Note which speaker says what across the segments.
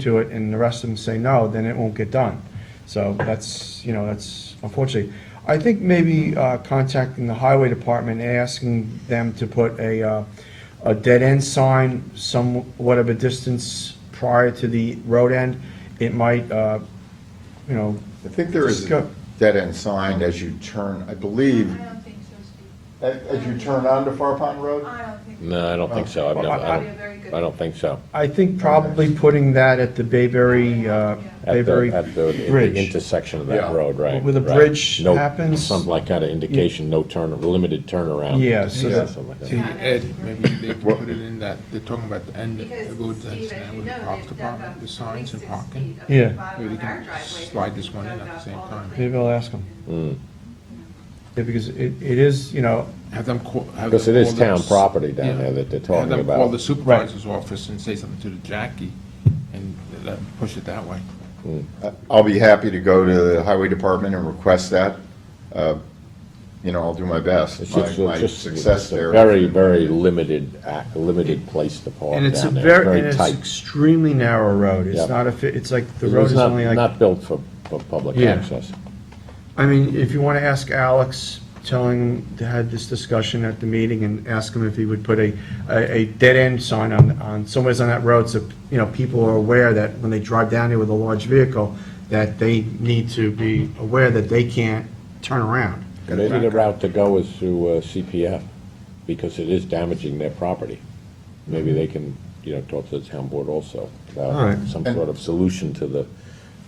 Speaker 1: to it and the rest of them say no, then it won't get done. So that's, you know, that's unfortunately. I think maybe uh, contacting the highway department, and asking them to put a, uh, a dead end sign somewhat of a distance prior to the road end, it might, uh, you know,
Speaker 2: I think there is a
Speaker 1: Disco-
Speaker 2: dead-end sign as you turn, I believe,
Speaker 3: I don't think so, Steve.
Speaker 2: as as you turn onto Far Pond Road?
Speaker 3: I don't think.
Speaker 4: No, I don't think so. I've
Speaker 1: Well,
Speaker 4: never,
Speaker 1: I-
Speaker 4: I
Speaker 3: I- Very good.
Speaker 4: don't, I don't think so.
Speaker 1: I think probably putting that at the Bayberry, uh,
Speaker 4: At
Speaker 1: Bayberry
Speaker 4: the, at the, at the
Speaker 1: Bridge.
Speaker 4: intersection of that
Speaker 2: Yeah.
Speaker 4: road, right?
Speaker 1: Where the
Speaker 4: right.
Speaker 1: bridge
Speaker 4: No-
Speaker 1: happens.
Speaker 4: Some like kind of indication, no turn, limited turnaround.
Speaker 1: Yeah, so
Speaker 2: Yeah.
Speaker 1: that-
Speaker 4: Something like
Speaker 5: To
Speaker 4: that.
Speaker 5: Ed, maybe they can
Speaker 2: What-
Speaker 5: put it in that, they're talking about the end of
Speaker 3: Because,
Speaker 5: the road
Speaker 3: Steve,
Speaker 5: that's
Speaker 3: as
Speaker 5: now
Speaker 3: you
Speaker 5: with the
Speaker 3: know,
Speaker 5: parks
Speaker 3: they've dug
Speaker 5: department,
Speaker 3: up
Speaker 5: with signs and
Speaker 3: 26
Speaker 5: parking.
Speaker 3: feet of the
Speaker 1: Yeah.
Speaker 3: bottom
Speaker 5: Maybe
Speaker 3: of
Speaker 5: they can
Speaker 3: our driveway,
Speaker 5: slide this one in
Speaker 3: dug
Speaker 5: at the
Speaker 3: up
Speaker 5: same
Speaker 3: all the
Speaker 5: time.
Speaker 1: maybe I'll ask them. Yeah, because it, it is, you know,
Speaker 5: Have them call. have
Speaker 4: Because
Speaker 5: them
Speaker 4: it is
Speaker 5: call the
Speaker 4: town
Speaker 5: s-
Speaker 4: property down
Speaker 5: yeah.
Speaker 4: there that they're
Speaker 5: Have
Speaker 4: talking
Speaker 5: them
Speaker 4: about.
Speaker 5: call the supervisor's office and say something to the Jackie, and let them push it that way.
Speaker 2: I'll be happy to go to the highway department and request that. Uh, You know, I'll do my best.
Speaker 4: It's
Speaker 2: My
Speaker 4: just-
Speaker 2: my
Speaker 4: just-
Speaker 2: success
Speaker 4: it's a
Speaker 2: there.
Speaker 4: Very, very limited, ac- limited place to park
Speaker 1: And it's a
Speaker 4: down there,
Speaker 1: very, and
Speaker 4: very
Speaker 1: it's
Speaker 4: tight.
Speaker 1: extremely narrow road.
Speaker 4: Yeah.
Speaker 1: It's not a, fi- it's like, the
Speaker 4: It's
Speaker 1: road is
Speaker 4: not-
Speaker 1: only like,
Speaker 4: Not built for, for public
Speaker 1: Yeah.
Speaker 4: access.
Speaker 1: I mean, if you want to ask Alex, tell him to had this discussion at the meeting and ask him if he would put a, a, a dead-end sign on, on, somewhere's on that road so, you know, people are aware that when they drive down here with a large vehicle, that they need to be aware that they can't turn around.
Speaker 4: Maybe the route to go is through uh, CPF, because it is damaging their property. Maybe they can, you know, talk to the town board also
Speaker 1: All right.
Speaker 4: about some sort of solution to the,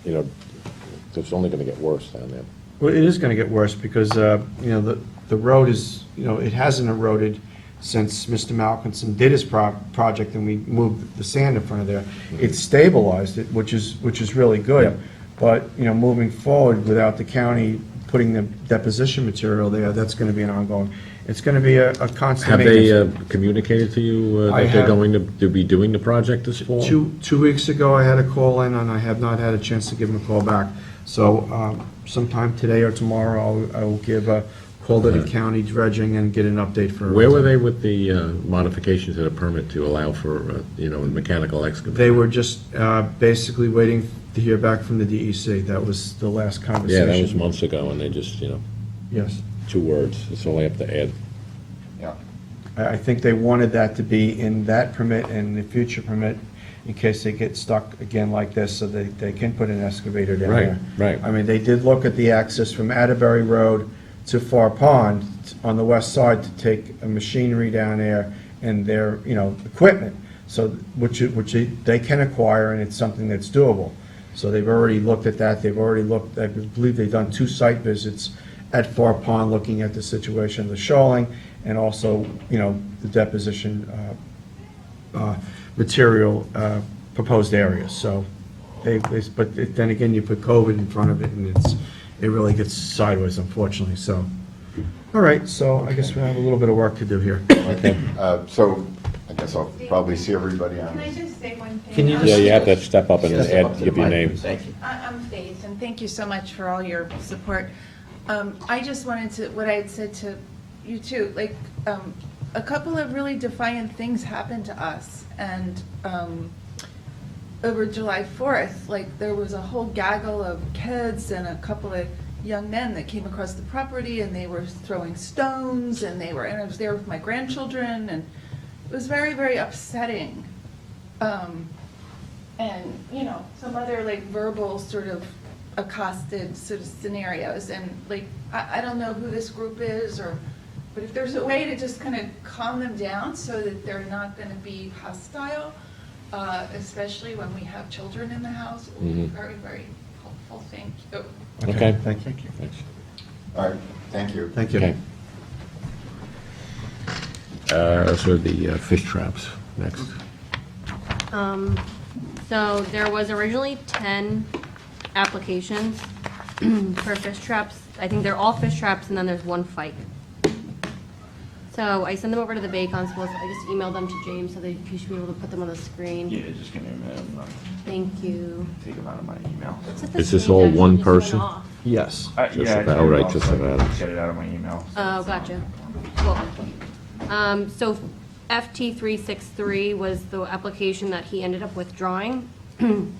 Speaker 4: you know, 'cause it's only gonna get worse down there.
Speaker 1: Well, it is going to get worse because, uh, you know, the, the road is, you know, it hasn't eroded since Mr. Malkinson did his pro- project and we moved the sand in front of there. It's stabilized it, which is, which is really good. But, you know, moving forward without the county putting the deposition material there, that's going to be an ongoing, it's going to be a a constant
Speaker 6: Have they
Speaker 1: maintenance.
Speaker 6: uh, communicated to you uh,
Speaker 1: I
Speaker 6: that they're
Speaker 1: have-
Speaker 6: going to to be doing the project this fall?
Speaker 1: Two, two weeks ago, I had a call in and I have not had a chance to give him a call back. So um, sometime today or tomorrow, I'll- I will give a call to the county dredging and get an update for.
Speaker 6: Where were they with the uh, modification to the permit to allow for, uh, you know, mechanical excavation?
Speaker 1: They were just uh, basically waiting to hear back from the DEC. That was the last
Speaker 6: Yeah,
Speaker 1: conversation.
Speaker 6: that was months ago, and they just, you know,
Speaker 1: Yes.
Speaker 6: two words, that's all I have to add.
Speaker 2: Yeah.
Speaker 1: I, I think they wanted that to be in that permit and the future permit in case they get stuck again like this, so they, they can put an excavator down
Speaker 6: Right,
Speaker 1: there.
Speaker 6: right.
Speaker 1: I mean, they did look at the access from Atterbury Road to Far Pond on the west side to take a machinery down there and their, you know, equipment. So, which, it- which it- they can acquire and it's something that's doable. So they've already looked at that, they've already looked, I believe they've done two site visits at Far Pond, looking at the situation of the shoaling and also, you know, the deposition uh, uh, material uh, proposed areas. So they, they- but then again, you put COVID in front of it and it's, it really gets sideways unfortunately, so. All right, so I guess we have a little bit of work to do here.
Speaker 2: Uh, So I guess I'll probably see everybody on.
Speaker 3: Can I just say one thing?
Speaker 1: Can you
Speaker 4: Yeah,
Speaker 1: just-
Speaker 4: you have to step up and
Speaker 2: Step up
Speaker 4: add,
Speaker 2: to
Speaker 4: give
Speaker 2: the
Speaker 4: your
Speaker 2: mic,
Speaker 4: name.
Speaker 2: please.
Speaker 3: I- I'm Faith, and thank you so much for all your support. Um, I just wanted to, what I had said to you too, like, um, a couple of really defiant things happened to us, and um, over July 4th, like, there was a whole gaggle of kids and a couple of young men that came across the property, and they were throwing stones, and they were, and I was there with my grandchildren, and it was very, very upsetting. Um, and, you know, some other like verbal sort of accosted sort of scenarios. And like, I, I don't know who this group is or, but if there's a way to just kind of calm them down so that they're not going to be hostile, uh, especially when we have children in the house, it would be
Speaker 4: Mhm.
Speaker 3: very, very helpful. Thank you.
Speaker 4: Okay.
Speaker 1: Thank you.
Speaker 4: Thanks.
Speaker 2: All right, thank you.
Speaker 1: Thank
Speaker 4: Okay.
Speaker 1: you.
Speaker 6: Uh, So the uh, fish traps, next.
Speaker 7: Um, so there was originally ten applications for fish traps. I think they're all fish traps and then there's one fight. So I sent them over to the Bay Constables. I just emailed them to James so that he should be able to put them on the screen.
Speaker 8: Yeah, just give me a minute, I'm gonna
Speaker 7: Thank you.
Speaker 8: take them out of my email.
Speaker 7: Except the
Speaker 6: Is this
Speaker 7: screen
Speaker 6: all
Speaker 7: actually
Speaker 6: one
Speaker 7: just went
Speaker 6: person?
Speaker 7: off.
Speaker 1: Yes.
Speaker 8: Uh,
Speaker 6: Just
Speaker 8: yeah, I
Speaker 6: about
Speaker 8: did,
Speaker 6: right,
Speaker 8: I'll
Speaker 6: just
Speaker 8: send-
Speaker 6: about.
Speaker 8: Get it out of my email. so
Speaker 7: Oh,
Speaker 8: it's not-
Speaker 7: gotcha. Cool. Um, so FT three six three was the application that he ended up withdrawing.